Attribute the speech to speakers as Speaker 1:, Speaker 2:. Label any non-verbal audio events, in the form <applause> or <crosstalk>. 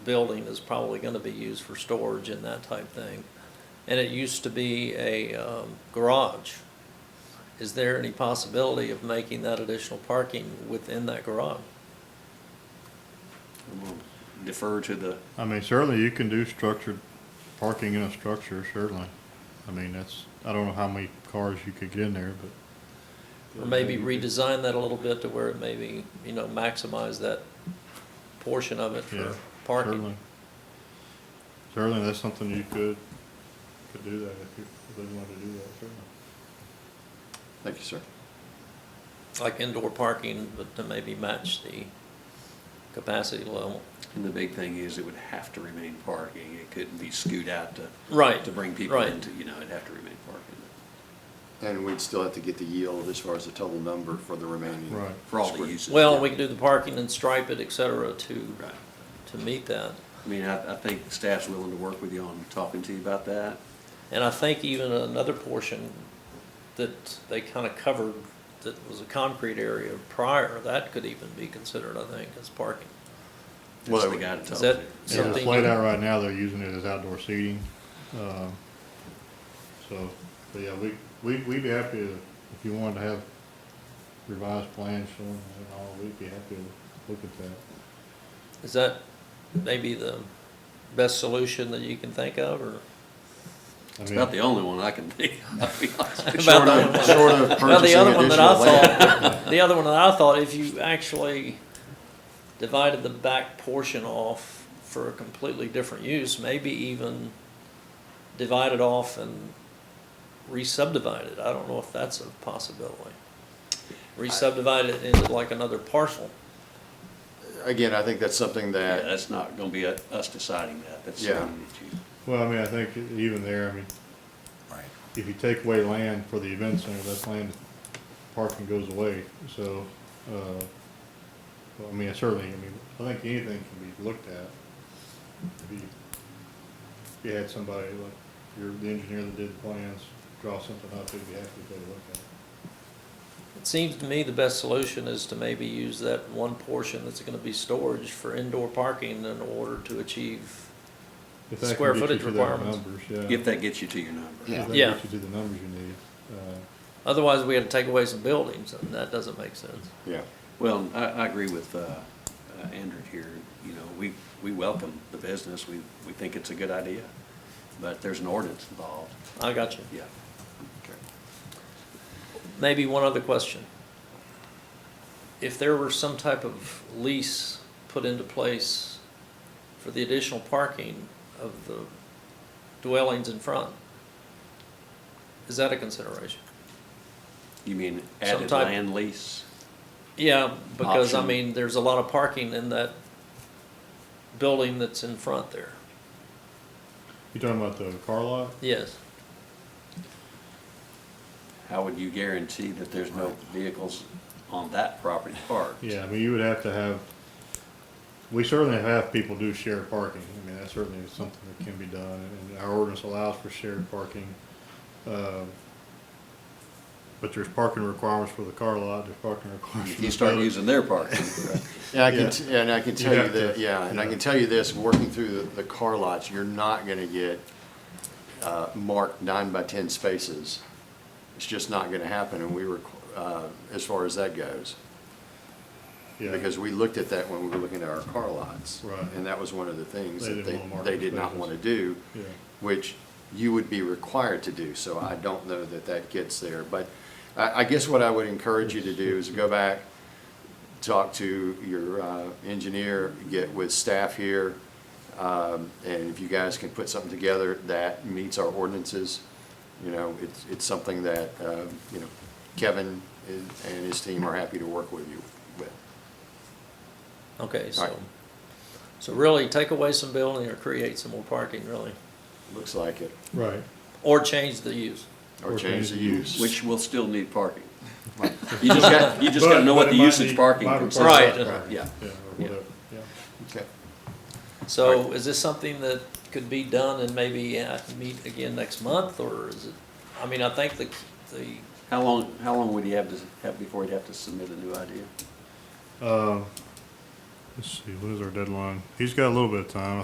Speaker 1: building is probably gonna be used for storage and that type thing. And it used to be a, um, garage. Is there any possibility of making that additional parking within that garage?
Speaker 2: We'll Defer to the,
Speaker 3: I mean, certainly you can do structured parking in a structure, certainly. I mean, that's, I don't know how many cars you could get in there, but
Speaker 1: Or maybe
Speaker 3: Mm-hmm.
Speaker 1: redesign that a little bit to where it maybe, you know, maximize that portion of it
Speaker 3: yeah,
Speaker 1: for
Speaker 3: certainly.
Speaker 1: parking?
Speaker 3: Certainly, that's something you could, could do that if you, if they wanted to do that, certainly.
Speaker 2: thank you, sir.
Speaker 1: Like indoor parking, but to maybe match the capacity level.
Speaker 2: And the big thing is it would have to remain parking. It couldn't be scoot out to,
Speaker 1: Right.
Speaker 2: to bring people
Speaker 1: right.
Speaker 2: into, you know, it'd have to remain parking
Speaker 4: And we'd still have to get the yield as far as the total number for the remaining.
Speaker 3: Right.
Speaker 2: for all the
Speaker 4: Square.
Speaker 2: uses.
Speaker 1: Well, we can do the parking and stripe it, et cetera, to,
Speaker 2: Right.
Speaker 1: to meet that.
Speaker 2: I mean, I, I think staff's willing to work with you on talking to you about that.
Speaker 1: And I think even another portion that they kind of covered, that was a concrete area prior, that could even be considered, I think, as parking.
Speaker 2: That's the guy to talk
Speaker 1: Is
Speaker 2: to.
Speaker 1: that
Speaker 3: Yeah,
Speaker 1: something?
Speaker 3: it's laid out right now, they're using it as outdoor seating, uh, so, but yeah, we, we, we'd be happy to, if you wanted to have revised plans showing and all, we'd be happy to look at that.
Speaker 1: Is that maybe the best solution that you can think of, or?
Speaker 3: I
Speaker 2: It's
Speaker 3: mean-
Speaker 2: about the only one I can think of, I'll be honest with you.
Speaker 1: About
Speaker 4: Short
Speaker 1: the
Speaker 4: of, short of
Speaker 1: Well, the
Speaker 4: purchasing
Speaker 1: other one that I
Speaker 4: additional land.
Speaker 1: thought, <laughs> the other one that I thought, if you actually divided the back portion off for a completely different use, maybe even divide it off and re-subdivide it. I don't know if that's a possibility. Re-subdivide it into like another parcel.
Speaker 4: Again, I think that's something
Speaker 2: Yeah,
Speaker 4: that,
Speaker 2: That's not gonna be us deciding that. That's
Speaker 4: Yeah.
Speaker 2: something that you.
Speaker 3: Well, I mean, I think even there, I mean,
Speaker 2: Right.
Speaker 3: if you take away land for the event center, that land parking goes away, so, uh, well, I mean, certainly, I mean, I think anything can be looked at. If you, if you had somebody like, you're the engineer that did the plans, draw something up, they'd be happy to take a look at it.
Speaker 1: It seems to me the best solution is to maybe use that one portion that's gonna be storage for indoor parking in order to achieve,
Speaker 3: If that can
Speaker 1: Square
Speaker 3: get you
Speaker 1: footage
Speaker 3: to their
Speaker 1: requirements.
Speaker 3: Numbers, yeah.
Speaker 2: If that gets you to your number.
Speaker 3: If that
Speaker 1: Yeah.
Speaker 3: gets you to the numbers you need, uh,
Speaker 1: otherwise we had to take away some buildings, and that doesn't make sense.
Speaker 4: yeah,
Speaker 2: Well, I, I agree with, uh, uh, Andrew here, you know, we, we welcome the business, we, we think it's a good idea, but there's an ordinance involved,
Speaker 1: I got you.
Speaker 2: yeah.
Speaker 1: Maybe one other question. If there were some type of lease put into place for the additional parking of the dwellings in front, is that a consideration?
Speaker 2: You mean
Speaker 1: Some
Speaker 2: added
Speaker 1: type-
Speaker 2: land lease?
Speaker 1: Yeah, because I
Speaker 2: Option.
Speaker 1: mean, there's a lot of parking in that building that's in front there.
Speaker 3: you talking about the car lot?
Speaker 1: Yes.
Speaker 2: How would you guarantee that there's no vehicles on that property parked?
Speaker 3: Yeah, I mean, you would have to have, we certainly have people do shared parking. I mean, that certainly is something that can be done, and our ordinance allows for shared parking. Um, But there's parking requirements for the car lot, there's parking requirements
Speaker 2: If
Speaker 3: for
Speaker 2: you
Speaker 3: the
Speaker 2: start
Speaker 3: building.
Speaker 2: using their parking,
Speaker 4: and
Speaker 3: Yeah.
Speaker 4: I can, t- and I can
Speaker 3: You
Speaker 4: tell you
Speaker 3: have
Speaker 4: that,
Speaker 3: to,
Speaker 4: yeah, and I
Speaker 3: yeah.
Speaker 4: can tell you this, working through the, the car lots, you're not gonna get, uh, marked nine by ten spaces. It's just not gonna happen, and we were, uh, as far as that goes.
Speaker 3: Yeah.
Speaker 4: Because we looked at that when we were looking at our car lots.
Speaker 3: Right.
Speaker 4: And that was one of the things
Speaker 3: They
Speaker 4: that
Speaker 3: didn't
Speaker 4: they,
Speaker 3: want market
Speaker 4: they did not
Speaker 3: spaces.
Speaker 4: want to do,
Speaker 3: Yeah.
Speaker 4: which you would be required to do. So I don't know that that gets there. But I, I guess what I would encourage you to do is go back, talk to your uh, engineer, get with staff here. um, And if you guys can put something together that meets our ordinances, you know, it's, it's something that, um, you know, Kevin and and his team are happy to work with you with.
Speaker 1: Okay,
Speaker 4: Right.
Speaker 1: so, so really take away some building or create some more parking, really,
Speaker 4: Looks like it.
Speaker 3: Right.
Speaker 1: or change the use.
Speaker 4: Or change the use.
Speaker 2: which will still need
Speaker 3: <laughs>
Speaker 2: parking. You just got, you just gotta know what
Speaker 3: But- but
Speaker 2: the
Speaker 3: it might
Speaker 2: usage
Speaker 3: need-
Speaker 2: parking
Speaker 3: might
Speaker 2: consists
Speaker 3: require
Speaker 1: Right.
Speaker 3: separate
Speaker 1: uh,
Speaker 3: parking.
Speaker 2: yeah.
Speaker 3: Yeah, or
Speaker 2: Yeah.
Speaker 3: whatever, yeah.
Speaker 4: Okay.
Speaker 1: So is this something that could be done and maybe uh, meet again next month, or is it, I mean, I think the, the,
Speaker 2: How long, how long would he have to, have before he'd have to submit a new idea?
Speaker 3: Um, Let's see, what is our deadline? He's got a little bit of time.